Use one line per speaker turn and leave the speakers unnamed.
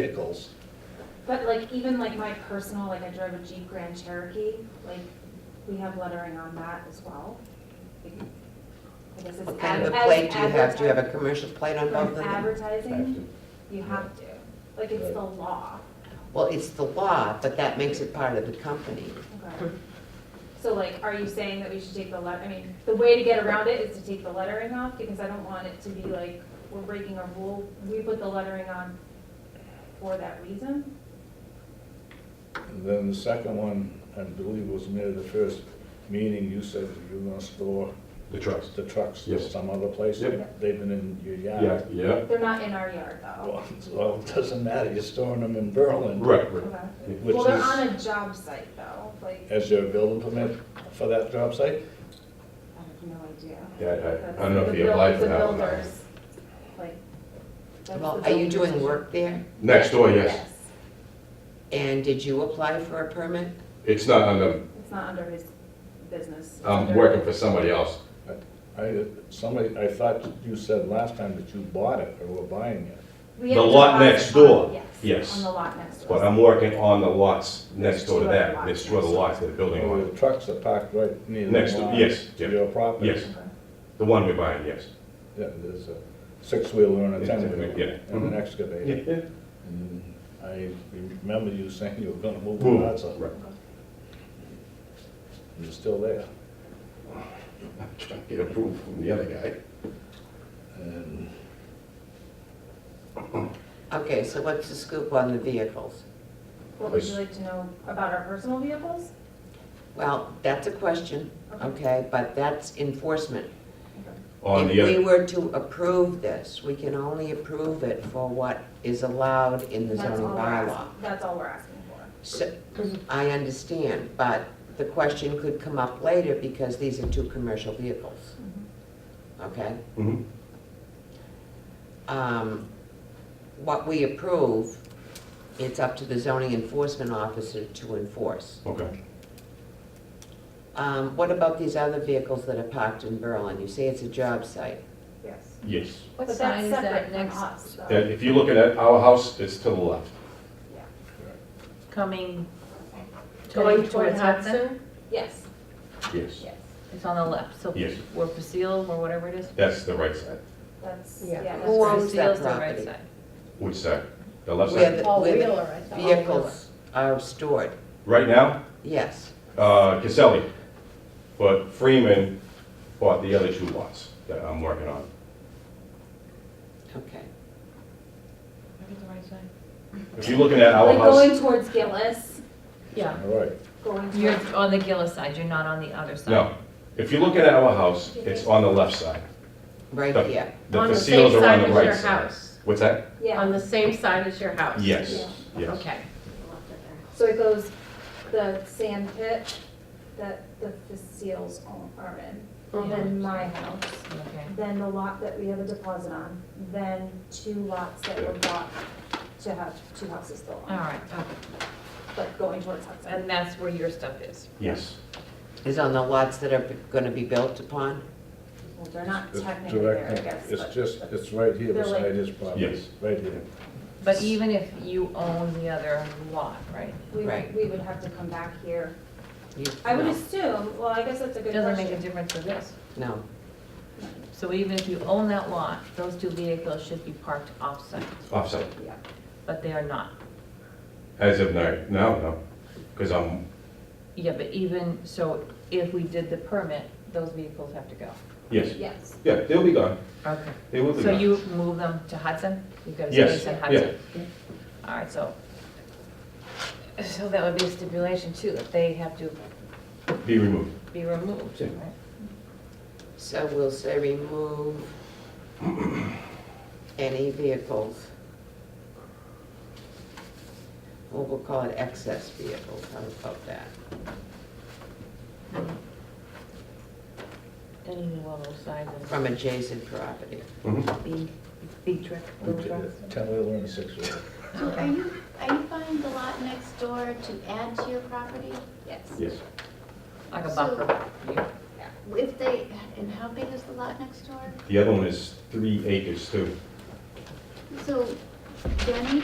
vehicles.
But like, even like my personal, like I drove a Jeep Grand Cherokee, like, we have lettering on that as well. I guess it's
What kind
ad-
of a
as
plate do you have? Do you have a
advertising-
commercial plate on both of
From
them?
Advertising, you have to, like, it's the law,
Well, it's the law, but that makes it part of the company.
okay? So like, are you saying that we should take the let, I mean, the way to get around it is to take the lettering off, because I don't want it to be like, we're breaking a rule, we put the lettering on for that reason?
And then the second one, I believe was near the first meeting, you said that you were gonna store
The trucks.
the trucks
Yes.
some other place.
Yep.
They've been in your
Yeah,
yard.
yeah,
They're not in our yard though.
Well, well, it doesn't matter, you're storing them in Berlin.
right, right.
Okay.
Which
Well, they're
is-
on a job site though, like, I
Is there a building permit for that job site?
have no idea.
Yeah, I- I don't know
That's
if
the
he
buil-
applied
the
for that one. though.
builders, like, that's
Well,
the
are you
builders.
doing work there?
Next door, Oh, yes.
And did you apply for a permit?
It's not under,
It's not under his business. It's
I'm
under-
working for somebody else.
I, somebody, I thought you said last time that you bought it or were buying it.
We
the
have
lot
deposits
next
on-
door.
Yes,
Yes.
on the lot next door.
But I'm working on the lots next door to that. It's two other lots that are building
Well,
on.
The trucks are parked right near the
Next to-
line.
yes,
to
yeah.
Your property.
Yes.
Okay.
The one we're buying, yes.
Yeah, there's a six-wheeler and a
Yeah,
ten-wheeler.
yeah. Mm-hmm.
And an excavator.
yeah.
And I remember you saying you were gonna move the
Boom.
lots up.
Right.
You're still there.
I'm trying to get approval from the other guy.
And
Okay, so what's the scoop on the vehicles?
What would you like to know about our personal vehicles?
Well, that's a question, okay, but that's enforcement.
Okay.
On the
If we
other,
were to approve this, we can only approve it for what is allowed in the
That's all
zoning
we're
bylaw.
asking- That's all we're asking for.
So, I understand, but the question could come up later because these are two commercial vehicles,
Mm-hmm.
okay?
Mhm.
um, what we approve, it's up to the zoning enforcement officer to enforce.
okay.
Um, What about these other vehicles that are parked in Berlin? You say it's a job site.
Yes.
Yes.
But
What
that's
sign is
separate
that
from
next,
us, though.
And if you look at our house, it's to the left.
Yeah.
coming,
Going
going
toward
towards Hudson?
Hudson?
Yes,
Yes.
yes.
It's on the left, so
Yes.
where Basile or whatever it is.
That's the right side.
That's,
Yeah.
yeah.
Who
that's-
owns that
Basile's the right
property?
side.
Which side? The left
Where
side?
the-
Oh,
where the
All-wheeler, I thought.
Vehicles are stored,
Right now,
yes.
uh, Caselli. But Freeman bought the other two lots that I'm working on.
Okay.
If you're looking at our
Like
house,
going towards Gillis,
Yeah,
All right,
going towards.
you're on the Gillis side, you're not on the other side.
no. If you're looking at our house, it's on the left side.
Right
The-
here.
The
On the
facilas
same
are on
side
the
as
right
your
side.
house.
What's that?
Yeah,
On the same side as your house.
Yes, yes.
Okay.
so it goes, the sand pit that the Faciles own are
Uh-huh.
in, then my house,
Okay.
then the lot that we have a deposit on, then two lots that were bought to have two houses still
All
on,
right, okay.
but going towards Hudson.
Uh-huh. and that's where your stuff is.
Yes.
Is on the lots that are gonna be built upon?
Well, they're not
It's
technically there, I
direct,
guess,
it's
but-
just, it's right here
They're
beside
like-
his property.
Yes.
Right here.
But even if you own the other lot, right?
We,
Right.
would- we would have to come back here.
You-
I would
no,
assume, well, I guess that's a
It
good
doesn't make a
question.
difference for this.
No,
So even if you own that lot, those two vehicles should be parked off-site,
Offside.
Yeah.
but they are not.
As of now, no, no. Because I'm,
Yeah, but even, so if we did the permit, those vehicles have to go.
yes.
Yes,
Yeah, they'll be gone.
Okay.
They will be
So
gone.
you move them to Hudson? You've got a
Yes,
space in
yeah.
Hudson? All right, so, so that would be a stipulation too, that they have to
Be removed.
be removed,
Yeah.
right?
so we'll say remove any vehicles. Well, we'll call it excess vehicles, how about that?
Any level size of.
From adjacent property.
Mhm.
Big, big truck, little truck.
Ten-wheeler and a six-wheeler.
So
are
you, are you buying the lot next door to add to your property?
yes.
Yes.
Like a
So-
bumper. yeah.
If they, and how big is the lot next door?
The other one is three acres too.
So Jenny